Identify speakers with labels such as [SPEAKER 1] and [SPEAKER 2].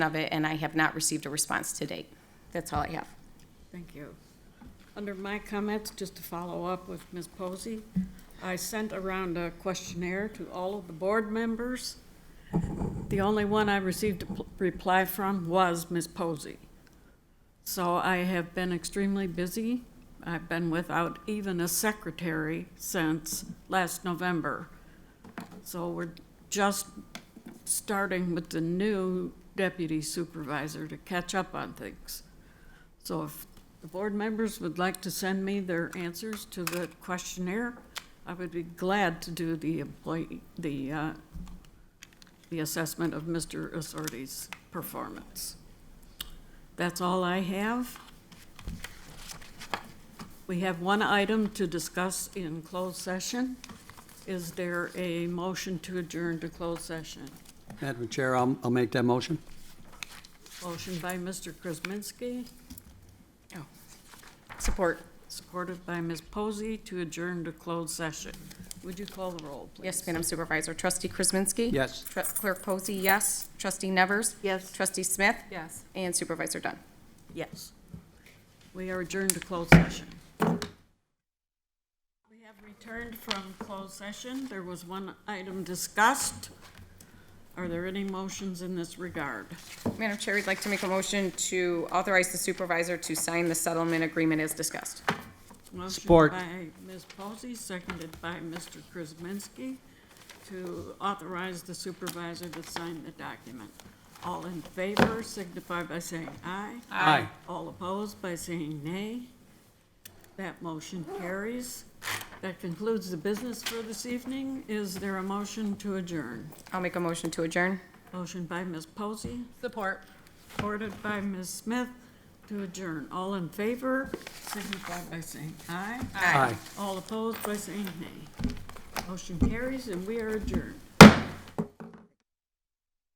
[SPEAKER 1] of it, and I have not received a response to date. That's all I have.
[SPEAKER 2] Thank you. Under my comments, just to follow up with Ms. Posey, I sent around a questionnaire to all of the board members. The only one I received a pl- reply from was Ms. Posey. So I have been extremely busy. I've been without even a secretary since last November. So we're just starting with the new deputy supervisor to catch up on things. So if the board members would like to send me their answers to the questionnaire, I would be glad to do the employee, the, uh, the assessment of Mr. Assorti's performance. That's all I have. We have one item to discuss in closed session. Is there a motion to adjourn to closed session?
[SPEAKER 3] Madam Chair, I'll, I'll make that motion.
[SPEAKER 2] Motion by Mr. Krasinski.
[SPEAKER 1] Support.
[SPEAKER 2] Supported by Ms. Posey to adjourn to closed session. Would you call the roll, please?
[SPEAKER 1] Yes, Madam Supervisor. Trustee Kuzminski?
[SPEAKER 3] Yes.
[SPEAKER 1] Tru- Clerk Posey, yes. Trustee Nevers?
[SPEAKER 2] Yes.
[SPEAKER 1] Trustee Smith?
[SPEAKER 2] Yes.
[SPEAKER 1] And Supervisor Dunn.
[SPEAKER 2] Yes. We are adjourned to closed session. We have returned from closed session. There was one item discussed. Are there any motions in this regard?
[SPEAKER 1] Madam Chair, we'd like to make a motion to authorize the supervisor to sign the settlement agreement as discussed.
[SPEAKER 3] Support.
[SPEAKER 2] Motion by Ms. Posey, seconded by Mr. Krasinski to authorize the supervisor to sign the document. All in favor signify by saying aye.
[SPEAKER 3] Aye.
[SPEAKER 2] All opposed by saying nay. That motion carries. That concludes the business for this evening. Is there a motion to adjourn?
[SPEAKER 1] I'll make a motion to adjourn.
[SPEAKER 2] Motion by Ms. Posey. Support. Supported by Ms. Smith to adjourn. All in favor signify by saying aye.
[SPEAKER 3] Aye.
[SPEAKER 2] All opposed by saying nay. Motion carries and we are adjourned.